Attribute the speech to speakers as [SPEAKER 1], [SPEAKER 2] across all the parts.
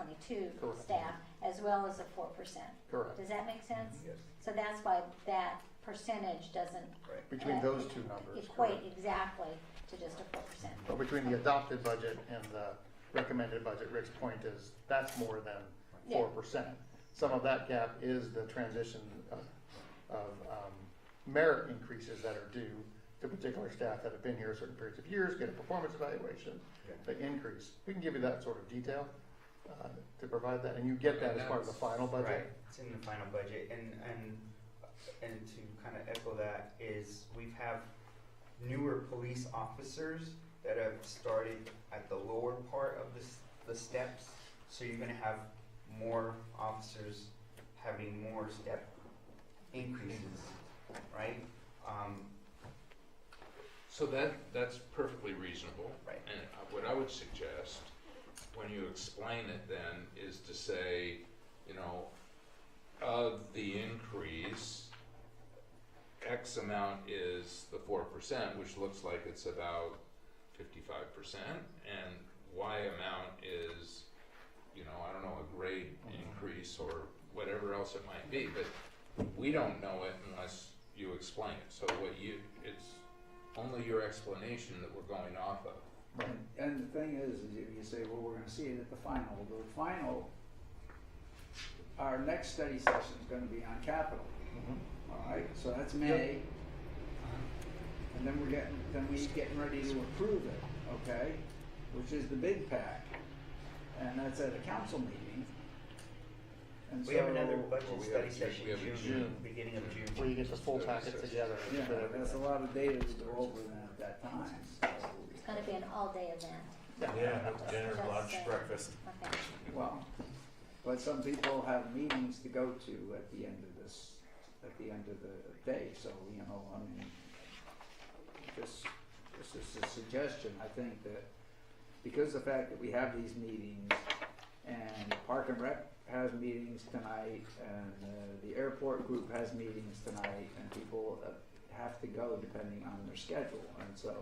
[SPEAKER 1] twenty-two
[SPEAKER 2] Correct.
[SPEAKER 1] staff, as well as a four percent.
[SPEAKER 2] Correct.
[SPEAKER 1] Does that make sense?
[SPEAKER 2] Mm-hmm.
[SPEAKER 3] Yes.
[SPEAKER 1] So that's why that percentage doesn't uh,
[SPEAKER 3] Right.
[SPEAKER 2] Between those two numbers,
[SPEAKER 1] equate
[SPEAKER 2] correct.
[SPEAKER 1] exactly to just a four percent.
[SPEAKER 2] But between the adopted budget and the recommended budget, Rick's point is, that's more than
[SPEAKER 1] Yeah.
[SPEAKER 2] four percent. Some of that gap is the transition of, of, um, merit increases that are due to particular staff that have been here certain periods of years, get a performance evaluation, the increase. We can give you that sort of detail, uh, to provide that, and you get that as part of the final
[SPEAKER 4] Right,
[SPEAKER 2] budget.
[SPEAKER 4] it's in the final budget, and, and, and to kind of echo that is, we've have newer police officers that have started at the lower part of the, s- the steps, so you're gonna have more officers having more step increases, right? Um,
[SPEAKER 5] So that, that's perfectly reasonable.
[SPEAKER 4] Right.
[SPEAKER 5] And uh, what I would suggest, when you explain it then, is to say, you know, of the increase, X amount is the four percent, which looks like it's about fifty-five percent, and Y amount is, you know, I don't know, a grade
[SPEAKER 2] Mhm.
[SPEAKER 5] increase or whatever else it might be, but we don't know it unless you explain it. So what you, it's only your explanation that we're going off of.
[SPEAKER 2] Right.
[SPEAKER 3] And the thing is, is if you say, well, we're gonna see it at the final, the final, our next study session's gonna be on capital,
[SPEAKER 2] Mhm.
[SPEAKER 3] all right? So that's May. And then we're getting, then we getting ready to approve it, okay? Which is the big pack. And that's at a council meeting. And
[SPEAKER 4] we have
[SPEAKER 3] so-
[SPEAKER 4] another
[SPEAKER 5] Well,
[SPEAKER 4] budget
[SPEAKER 5] we
[SPEAKER 4] study
[SPEAKER 5] have June-
[SPEAKER 4] session
[SPEAKER 5] we have
[SPEAKER 4] June,
[SPEAKER 2] June.
[SPEAKER 4] beginning of June.
[SPEAKER 2] Where you get the full packet together.
[SPEAKER 3] Yeah,
[SPEAKER 2] for everything.
[SPEAKER 3] that's a lot of data to go over then at that time.
[SPEAKER 1] It's gonna be an all-day event.
[SPEAKER 6] Yeah, dinner,
[SPEAKER 1] Just
[SPEAKER 6] lunch,
[SPEAKER 1] saying.
[SPEAKER 6] breakfast.
[SPEAKER 1] Okay.
[SPEAKER 3] Well, but some people have meetings to go to at the end of this, at the end of the day, so, you know, I mean, just, this is a suggestion, I think that, because the fact that we have these meetings, and Park and Rec has meetings tonight, and uh, the airport group has meetings tonight, and people uh, have to go depending on their schedule, and so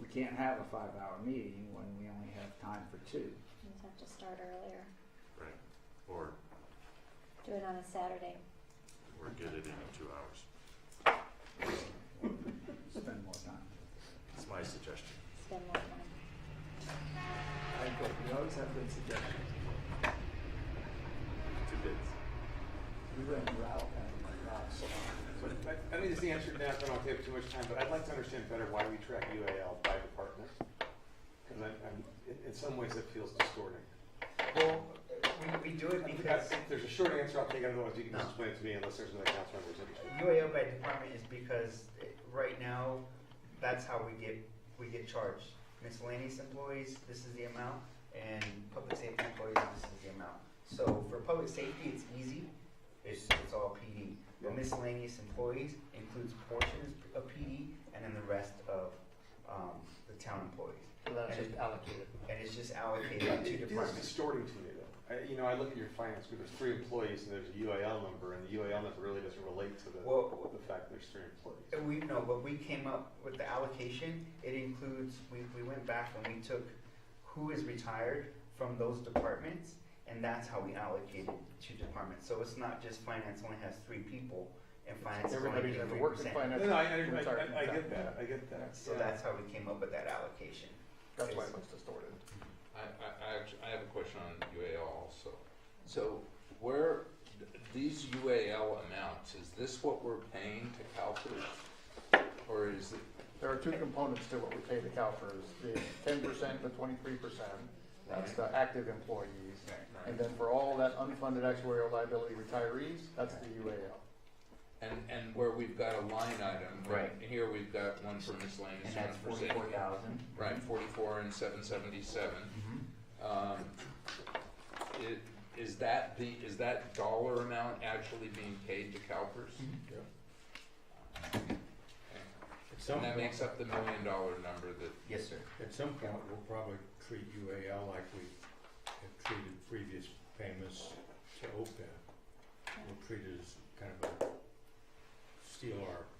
[SPEAKER 3] we can't have a five-hour meeting when we only have time for two.
[SPEAKER 1] You just have to start earlier.
[SPEAKER 6] Right. Or,
[SPEAKER 1] Do it on a Saturday.
[SPEAKER 6] or get it in in two hours.
[SPEAKER 3] spend more time.
[SPEAKER 6] That's my suggestion.
[SPEAKER 1] Spend more time.
[SPEAKER 3] I agree. We always have good suggestions.
[SPEAKER 6] Two bids.
[SPEAKER 3] We went route and route
[SPEAKER 7] So, I I think this is the answer now, so I don't take too much time, but I'd like to understand better why we track UAL by department. Because I'm, I'm- in, in some ways it feels distorting.
[SPEAKER 4] Well, we, we do it
[SPEAKER 7] If
[SPEAKER 4] because.
[SPEAKER 7] there's a short answer, I'll take it, otherwise you can just explain it to me unless there's another council member's interested.
[SPEAKER 4] UAL by department is because it- right now, that's how we get, we get charged. Miscellaneous employees, this is the amount, and public safety employees, this is the amount. So for public safety, it's easy, it's, it's all PD. But miscellaneous employees includes portions of PD and then the rest of, um, the town employees.
[SPEAKER 2] So that's just allocated.
[SPEAKER 4] And it's just allocated to
[SPEAKER 7] It feels
[SPEAKER 4] departments.
[SPEAKER 7] distorting to me though. I, you know, I look at your finance group, there's three employees and there's a UAL number, and the UAL number really doesn't relate to the,
[SPEAKER 4] Well-
[SPEAKER 7] the fact there's three employees.
[SPEAKER 4] And we, no, but we came up with the allocation, it includes, we, we went back and we took who is retired from those departments, and that's how we allocated to departments, so it's not just finance only has three people, and finance is only
[SPEAKER 2] Everybody that
[SPEAKER 4] three
[SPEAKER 2] works in
[SPEAKER 4] percent.
[SPEAKER 7] No,
[SPEAKER 2] finance.
[SPEAKER 7] no, I, I,
[SPEAKER 2] retired from
[SPEAKER 7] I- I
[SPEAKER 2] tax.
[SPEAKER 7] get that, I get that.
[SPEAKER 4] So
[SPEAKER 7] yeah.
[SPEAKER 4] that's how we came up with that allocation.
[SPEAKER 2] That's why it looks distorted.
[SPEAKER 5] I, I, I actually, I have a question on UAL also. So where, th- these UAL amounts, is this what we're paying to CalPERS? Or is it,
[SPEAKER 2] There are two components to what we pay the CalPERS, the ten percent, the twenty-three percent, that's the active employees. And then for all that unfunded actuarial liability retirees, that's the UAL.
[SPEAKER 5] and, and where we've got a line item?
[SPEAKER 4] Right.
[SPEAKER 5] and Here we've got one for miscellaneous, one for safety.
[SPEAKER 4] thousand.
[SPEAKER 5] Right, forty-four and seven seventy-seven.
[SPEAKER 2] Mm-hmm.
[SPEAKER 5] Um, it, is that the, is that dollar amount actually being paid to CalPERS? Okay.
[SPEAKER 8] At some,
[SPEAKER 5] And that
[SPEAKER 8] point-
[SPEAKER 5] makes up the million dollar number that,
[SPEAKER 4] Yes, sir.
[SPEAKER 8] at some point, we'll probably treat UAL like we have treated previous payments E to OPEB. We'll treat it as kind of a steal our uh, E